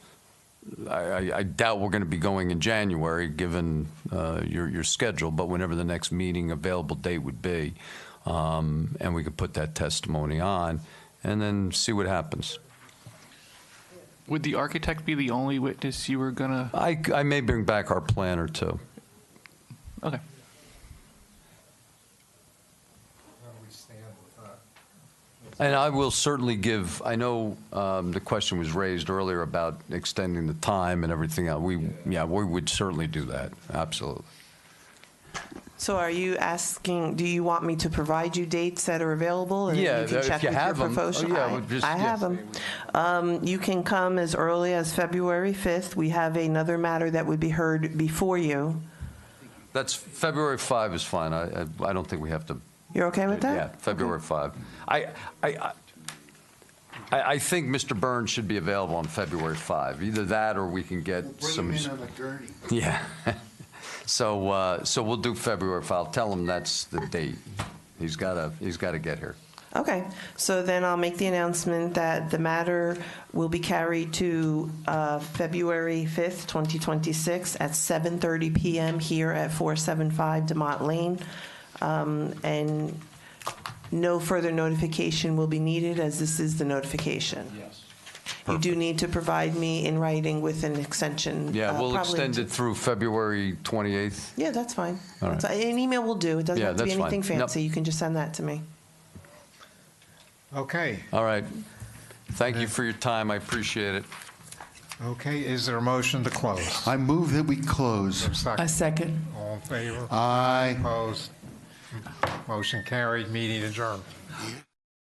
I, I doubt we're going to be going in January, given uh, your, your schedule, but whenever the next meeting available date would be. um, And we could put that testimony on and then see what happens. Would the architect be the only witness you were gonna? I, I may bring back our plan or two. Okay. How do we stand with that? And I will certainly give, I know um, the question was raised earlier about extending the time and everything else. We, yeah, we would certainly do that, absolutely. So are you asking, do you want me to provide you dates that are available? and then Yeah, can if check you with your have 'em. Oh, professional- yeah, I- well, just- I yeah. have them. You can come as early as February 5th. We have another matter that would be heard before you. That's, February 5 is fine. I, I- I don't think we have to You're okay with that? Yeah, February 5. I, I, I- I, I think Mr. Burns should be available on February 5. Either that or we can get Bring him some. in on a gurney. Yeah. So, uh, so we'll do February 5. I'll Tell him that's the date. He's gotta, he's gotta get here. Okay, so then I'll make the announcement that the matter will be carried to uh, February 5th, 2026 at 7:30 PM here at 475 Demont Lane. Um, And no further notification will be needed as this is the notification. Yes. You do need to provide me in writing with an extension. Yeah, uh, we'll probably- extend it through February 28th. Yeah, that's fine. All right. That's- An email will do. It doesn't Yeah, have to be that's fine. anything Nope. fancy. You can just send that to me. Okay, All right. Thank you for your time. I appreciate it. okay, is there a motion to close? I move that we close. Second. second. All in favor? Aye. Opposed? Motion carried, meeting adjourned.